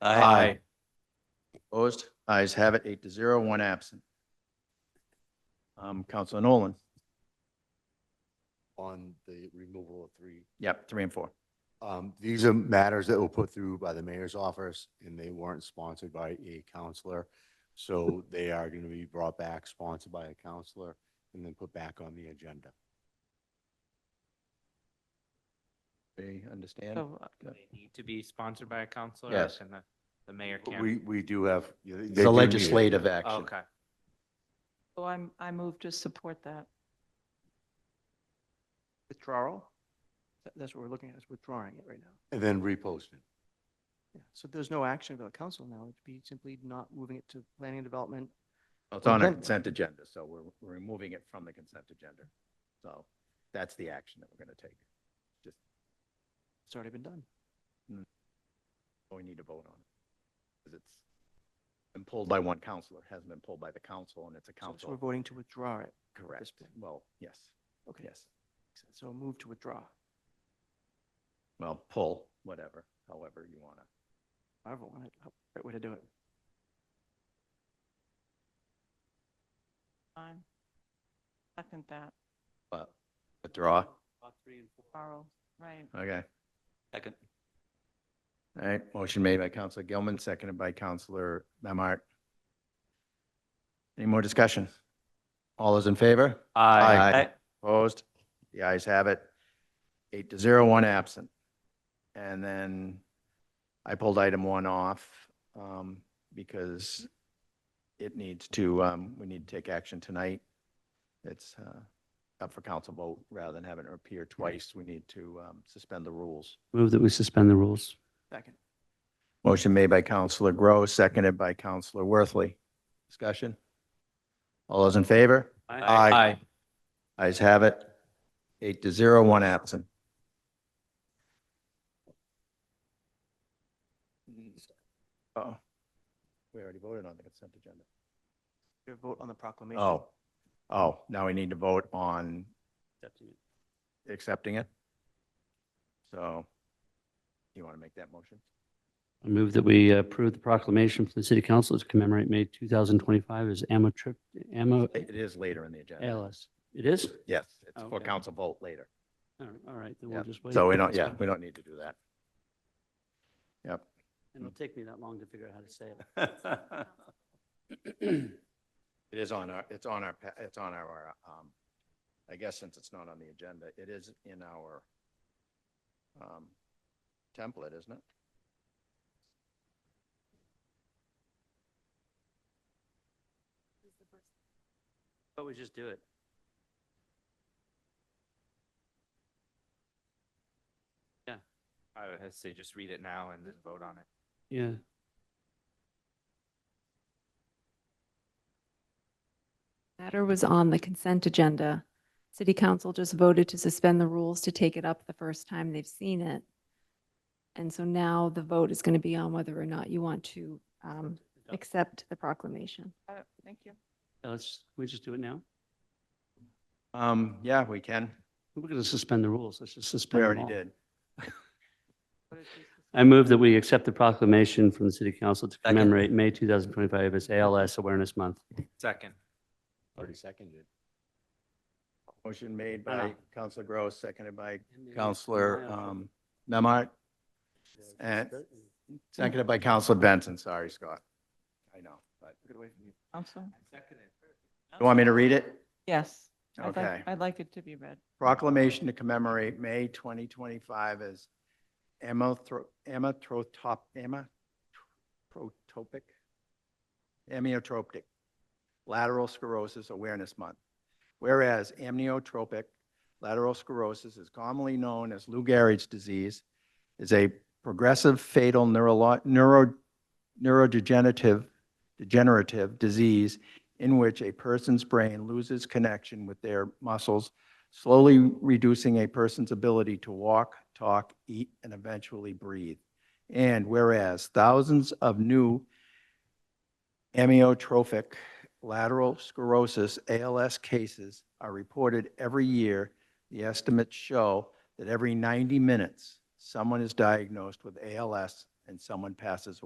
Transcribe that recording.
Aye. Opposed? Ayes have it, eight to zero, one absent. Um, Counselor Nolan, on the removal of three. yep, three and four. Um, These are matters that were put through by the mayor's office, and they weren't sponsored by a counselor. So they are going to be brought back, sponsored by a counselor, and then put back on the agenda. They understand? So uh, Good. they need to be sponsored by a counselor? or Yes. Can the, the mayor But can? We, we do have. yeah, they It's do need a it. legislative action. Oh, Okay. So I'm, I move to support that. withdrawal. That- That's what we're looking at, is withdrawing it right now. And then repost it. Yeah. So there's no action by the council now. It'd be simply not moving it to planning and development. Oh, It's on a Consent. consent agenda, so we're, we're removing it from the consent agenda. So that's the action that we're going to take. It's already been done. oh, We need to vote on it. Because it's been pulled by one counselor, hasn't been pulled by the council, and it's a So- So we're council. voting to withdraw it. Correct. point. Well, yes, Okay. yes. So a move to withdraw. Well, pull, whatever, however you want to. However, want it, how- right way to do it. Fine. Second that, But withdraw. Carl, right. Okay. Second. All right, motion made by Counselor Gilman, seconded by Counselor Memhart. Any more discussion? All those in favor? Aye. Aye. Opposed? The ayes have it. Eight to zero, one absent. And then I pulled item one off um, because it needs to, um, we need to take action tonight. It's uh, up for council vote rather than having it appear twice. We need to um, suspend the rules. Move that we suspend the rules. Second. Motion made by Counselor Groh, seconded by Counselor Worthley. Discussion? All those in favor? Aye. Ayes have it. Eight to zero, one absent. Oh, we already voted on the consent agenda. Your vote on the proclamation. Oh, oh, now we need to vote on accepting it. So you want to make that motion? I move that we approve the proclamation from the city council to commemorate May 2025 as AMO trip, AMO It is later in the agenda. ALS. It is? Yes, it's for Okay. council vote later. All right, all right, then we'll Yep. just wait. So we don't, That's yeah, fine. we don't need to do that. Yep. It'll take me that long to figure out how to say it. It is on our, it's on our, pa- it's on our, um, I guess since it's not on the agenda, it is in our, um, template, isn't it? But we just do it. I would say just read it now and then vote on it. Yeah. Matter was on the consent agenda. City council just voted to suspend the rules to take it up the first time they've seen it. And so now the vote is going to be on whether or not you want to um, accept the proclamation. Uh, Thank you. Yeah, Let's, we just do it now? Um, yeah, we can. We're going to suspend the rules. Let's just We suspend them already all. did. What is this? I move that we accept the proclamation from the city council to commemorate May 2025 as ALS Awareness Month. Second. Already seconded. Motion made by Uh-huh. Counselor Gross, seconded by Counselor, um, Memhard, And- seconded by Counselor Benson. Sorry, Scott. I know, but Get away from you. Counsel? you want me to read it? Yes. I'd like- Okay. I'd like it to be read. proclamation to commemorate May 2025 as Amyotro- Amyotropop, Amyotrophic, amyotrophic lateral sclerosis awareness month. Whereas amyotrophic lateral sclerosis is commonly known as Lou Gehrig's disease, is a progressive fatal neurolo- neuro- neurodegenerative degenerative disease in which a person's brain loses connection with their muscles slowly reducing a person's ability to walk, talk, eat, and eventually breathe. And whereas thousands of new amyotrophic lateral sclerosis, ALS cases are reported every year, the estimates show that every 90 minutes, someone is diagnosed with ALS and someone passes